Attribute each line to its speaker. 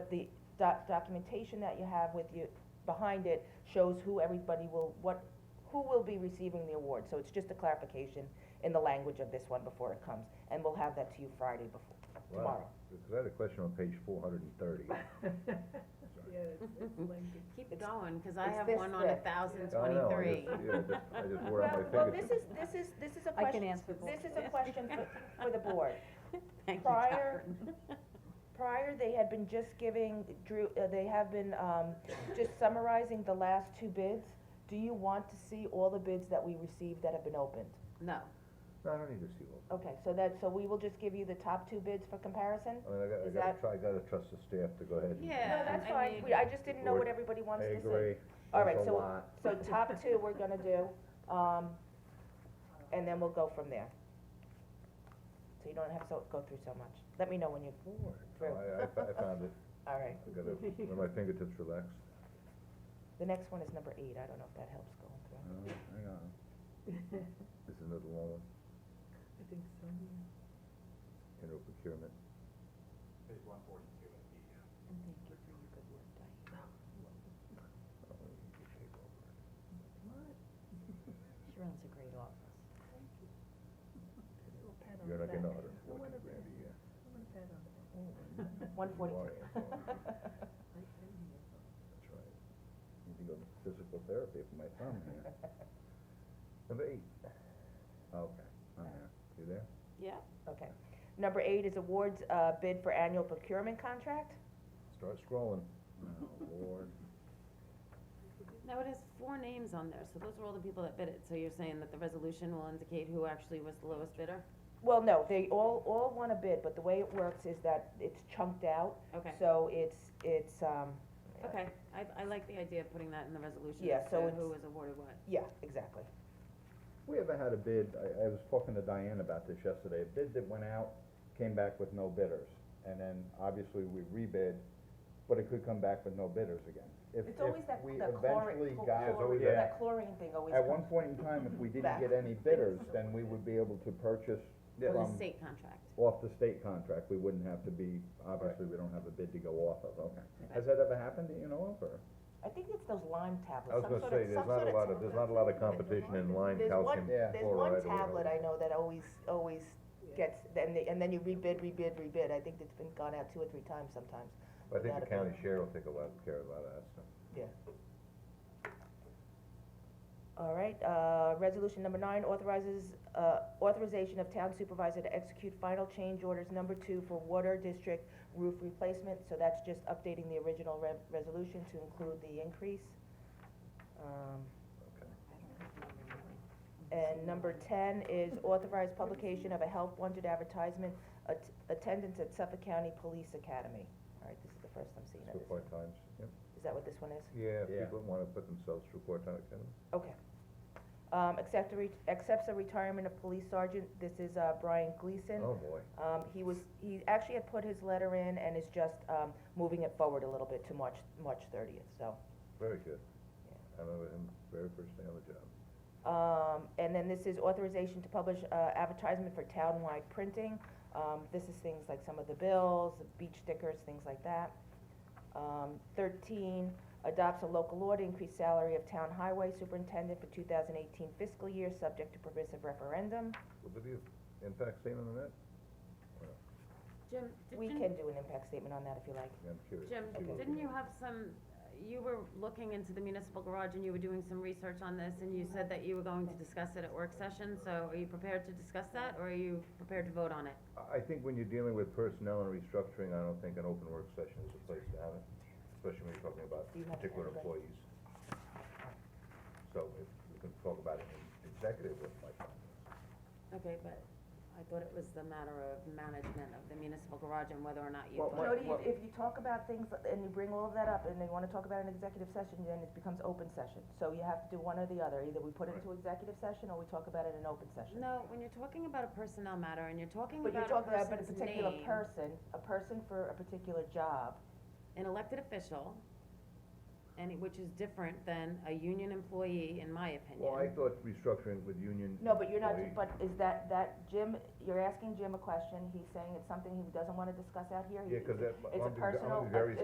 Speaker 1: the doc- documentation that you have with you, behind it, shows who everybody will, what, who will be receiving the award. So it's just a clarification in the language of this one before it comes, and we'll have that to you Friday before,
Speaker 2: Wow.
Speaker 1: tomorrow.
Speaker 2: Because I had a question on page four hundred and thirty.
Speaker 3: Yeah, it's it's lengthy.
Speaker 4: Keep going, cause I
Speaker 1: it's
Speaker 4: have
Speaker 1: this
Speaker 4: one on a
Speaker 1: thick.
Speaker 4: thousand
Speaker 2: I know, I
Speaker 4: twenty-three.
Speaker 2: just- yeah, I just, I just wore out my
Speaker 1: Well,
Speaker 2: fingers.
Speaker 1: well, this is, this is, this is a
Speaker 5: I can
Speaker 1: question,
Speaker 5: answer both.
Speaker 1: this is a question for, for the board.
Speaker 4: Thank you,
Speaker 1: Prior-
Speaker 4: Catherine.
Speaker 1: Prior, they had been just giving, Drew, uh, they have been, um, just summarizing the last two bids. Do you want to see all the bids that we received that have been opened?
Speaker 4: No,
Speaker 2: No, I don't need to see all.
Speaker 1: Okay, so that, so we will just give you the top two bids for comparison?
Speaker 2: I mean, I gotta, I
Speaker 1: Is
Speaker 2: gotta
Speaker 1: that-
Speaker 2: try, I gotta trust the staff to go ahead and.
Speaker 1: No,
Speaker 4: Yeah,
Speaker 1: that's
Speaker 4: I
Speaker 1: fine,
Speaker 4: mean-
Speaker 1: We- I just didn't know what
Speaker 2: Board-
Speaker 1: everybody
Speaker 2: I
Speaker 1: wants to see.
Speaker 2: agree.
Speaker 1: All right,
Speaker 2: That's a
Speaker 1: so-
Speaker 2: lot.
Speaker 1: So top two, we're gonna do, um, and then we'll go from there. So you don't have to go through so much. Let me know when you're
Speaker 2: No,
Speaker 1: through.
Speaker 2: I, I fo- I found it,
Speaker 1: All right,
Speaker 2: I gotta, when my fingertips relax.
Speaker 1: the next one is number eight, I don't know if that helps going through.
Speaker 2: Oh, hang on. This is another long one,
Speaker 3: I think so, yeah.
Speaker 2: general procurement.
Speaker 6: Page one forty-two in the, uh,
Speaker 2: Oh, you can take over.
Speaker 5: She runs a great office.
Speaker 3: A little pat on
Speaker 2: You're
Speaker 3: the
Speaker 2: not gonna
Speaker 3: back.
Speaker 2: order
Speaker 3: I
Speaker 2: forty
Speaker 3: want a pat,
Speaker 2: grand a year.
Speaker 3: I want a pat on the back.
Speaker 1: One forty-two.
Speaker 2: Why? That's right. Need to go to physical therapy for my thumb here. Number eight. Okay, I'm there. You there?
Speaker 4: yeah,
Speaker 1: Okay. Number eight is awards, uh, bid for annual procurement contract.
Speaker 2: Start scrolling. Oh, Lord.
Speaker 4: no, it has four names on there, so those are all the people that bid it, so you're saying that the resolution will indicate who actually was the lowest bidder?
Speaker 1: Well, no, they all, all want a bid, but the way it works is that it's chunked out.
Speaker 4: Okay,
Speaker 1: So it's, it's, um,
Speaker 4: okay, I, I like the idea of putting that in the resolution,
Speaker 1: Yeah,
Speaker 4: as
Speaker 1: so
Speaker 4: to
Speaker 1: it's-
Speaker 4: who was awarded what.
Speaker 1: yeah, exactly.
Speaker 2: We ever had a bid, I, I was talking to Diane about this yesterday, a bid that went out, came back with no bidders. And then obviously we rebid, but it could come back with no bidders again. If-
Speaker 1: It's always
Speaker 2: if
Speaker 1: that,
Speaker 2: we
Speaker 1: that chlorine,
Speaker 2: eventually got-
Speaker 1: chlorine,
Speaker 2: Yeah.
Speaker 1: that chlorine thing always
Speaker 2: At
Speaker 1: comes.
Speaker 2: one point in time, if we didn't
Speaker 1: Back.
Speaker 2: get any bidders, then we would be able to purchase
Speaker 4: For the
Speaker 2: from,
Speaker 4: state contract,
Speaker 2: off the state contract, we wouldn't have to be, obviously, we don't have a bid to go off of, okay. Has that ever happened, do you know, of, or?
Speaker 1: I think it's those lime tablets,
Speaker 6: I was
Speaker 1: some
Speaker 6: gonna
Speaker 1: sort
Speaker 6: say,
Speaker 1: of, some
Speaker 6: there's not
Speaker 1: sort
Speaker 6: a
Speaker 1: of.
Speaker 6: lot of, there's not a lot of competition in line calcium
Speaker 2: Yeah.
Speaker 1: There's one, there's
Speaker 2: chloride or
Speaker 1: one tablet
Speaker 2: whatever.
Speaker 1: I know that always, always
Speaker 3: Yeah.
Speaker 1: gets, then they, and then you rebid, rebid, rebid, I think it's been gone out two or three times sometimes.
Speaker 2: I think
Speaker 1: without a
Speaker 2: the
Speaker 1: bid.
Speaker 2: county share will take a lot, care of a lot of that stuff.
Speaker 1: All right, uh, resolution number nine authorizes, uh, authorization of town supervisor to execute final change orders number two for water district roof replacement, so that's just updating the original re- resolution to include the increase. Um, And number ten is authorized publication of a Help Wanted advertisement, at- attendance at Suffolk County Police Academy. All right, this is the first I'm seeing of
Speaker 2: Through
Speaker 1: this.
Speaker 2: four times, yep.
Speaker 1: Is that what this one is?
Speaker 2: Yeah,
Speaker 6: Yeah.
Speaker 2: people wanna put themselves through four times, kind of.
Speaker 1: Okay. Um, accept a re- accepts the retirement of police sergeant, this is, uh, Brian Gleason.
Speaker 2: oh boy.
Speaker 1: Um, he was, he actually had put his letter in and is just, um, moving it forward a little bit to March, March thirtieth, so.
Speaker 2: Very good. I remember him very first day on the job.
Speaker 1: Um, and then this is authorization to publish, uh, advertisement for townwide printing. Um, this is things like some of the bills, beach stickers, things like that. Um, thirteen, adopts a local law to increase salary of town highway superintendent for two thousand eighteen fiscal year, subject to permissive referendum.
Speaker 2: Will there be an impact statement on that?
Speaker 4: Jim, did
Speaker 1: We
Speaker 4: you-
Speaker 1: can do an impact statement on that if you like.
Speaker 2: Yeah, I'm curious.
Speaker 4: Jim,
Speaker 2: See what-
Speaker 4: didn't you have some, you were looking into the municipal garage and you were doing some research on this and you said that you were going to discuss it at work session, so are you prepared to discuss that or are you prepared to vote on it?
Speaker 2: I, I think when you're dealing with personnel and restructuring, I don't think an open work session is the place to have it, especially when you're talking about
Speaker 1: Do you have it
Speaker 2: particular
Speaker 1: anyway?
Speaker 2: employees. So if we can talk about it in executive with my
Speaker 4: Okay, but I thought it was the matter of management of the municipal garage and whether or not you.
Speaker 2: Well,
Speaker 4: vote.
Speaker 1: Jody,
Speaker 2: what-
Speaker 1: if, if you talk about things and you bring all of that up and they wanna talk about an executive session, then it becomes open session. So you have to do one or the other, either we put it into executive session or we talk about it in open session.
Speaker 4: No, when you're talking about a personnel matter and you're talking
Speaker 1: But you're
Speaker 4: about a
Speaker 1: talking about a
Speaker 4: person's
Speaker 1: particular
Speaker 4: name,
Speaker 1: person, a person for a particular job.
Speaker 4: an elected official, and it- which is different than a union employee, in my opinion.
Speaker 2: Well, I thought restructuring with union.
Speaker 1: No, but you're not,
Speaker 2: employee-
Speaker 1: but is that, that Jim, you're asking Jim a question, he's saying it's something he doesn't wanna discuss out here? he-
Speaker 2: Yeah, cause that,
Speaker 1: It's a
Speaker 2: I'm gonna be- I'm gonna
Speaker 1: personal-
Speaker 2: be very